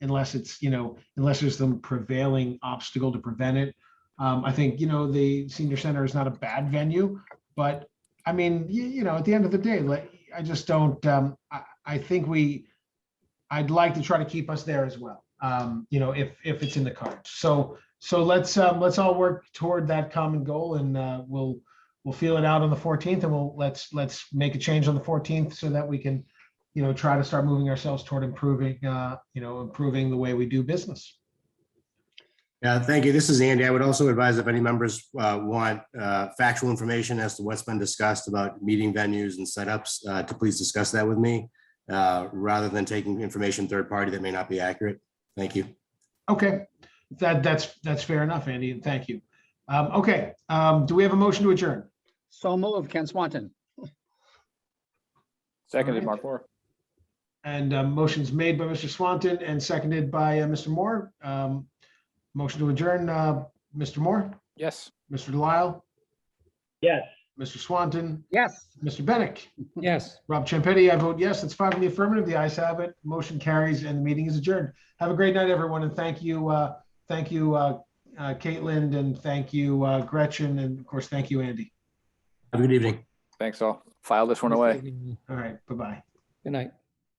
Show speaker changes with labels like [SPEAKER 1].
[SPEAKER 1] unless it's, you know, unless there's some prevailing obstacle to prevent it. Um, I think, you know, the senior center is not a bad venue, but I mean, you, you know, at the end of the day, like, I just don't, um, I, I think we, I'd like to try to keep us there as well. Um, you know, if, if it's in the cards. So, so let's, um, let's all work toward that common goal and, uh, we'll, we'll feel it out on the 14th and we'll, let's, let's make a change on the 14th so that we can, you know, try to start moving ourselves toward improving, uh, you know, improving the way we do business.
[SPEAKER 2] Yeah, thank you. This is Andy. I would also advise if any members uh, want uh, factual information as to what's been discussed about meeting venues and setups, uh, to please discuss that with me uh, rather than taking information third party that may not be accurate. Thank you.
[SPEAKER 1] Okay, that, that's, that's fair enough, Andy, and thank you. Um, okay, um, do we have a motion to adjourn?
[SPEAKER 3] So moved, Ken Swanton.
[SPEAKER 1] Alright.
[SPEAKER 4] Seconded, Mark Moore.
[SPEAKER 1] And, um, motions made by Mr. Swanton and seconded by, uh, Mr. Moore. Um, motion to adjourn, uh, Mr. Moore,
[SPEAKER 4] Yes.
[SPEAKER 1] Mr. Delisle? Yes. Mr. Swanton,
[SPEAKER 3] Yes.
[SPEAKER 1] Mr. Bennett?
[SPEAKER 5] Yes.
[SPEAKER 1] Rob Champetti, I vote yes. That's five in the affirmative. The ayes have it. Motion carries and the meeting is adjourned. Have a great night, everyone, and thank you, uh, thank you, uh, uh, Caitlin, and thank you, uh, Gretchen, and of course, thank you, Andy.
[SPEAKER 2] Have a good evening.
[SPEAKER 4] Thanks all. File this one away.
[SPEAKER 5] Good
[SPEAKER 1] All right, bye-bye.
[SPEAKER 5] night.